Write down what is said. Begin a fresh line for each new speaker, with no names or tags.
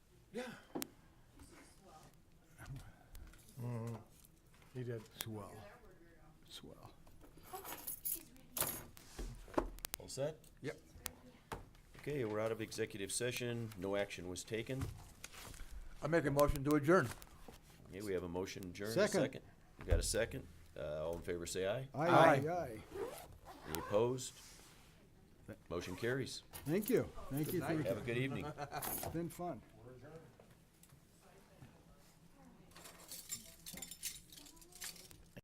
Yeah.
He did. Swell. Swell.
All set?
Yep.
Okay, we're out of executive session. No action was taken.
I make a motion to adjourn.
Okay, we have a motion adjourned.
Second.
We got a second. Uh, all in favor, say aye.
Aye.
Aye, aye, aye.
Any opposed? Motion carries.
Thank you. Thank you. for-
Have a good evening.
It's been fun.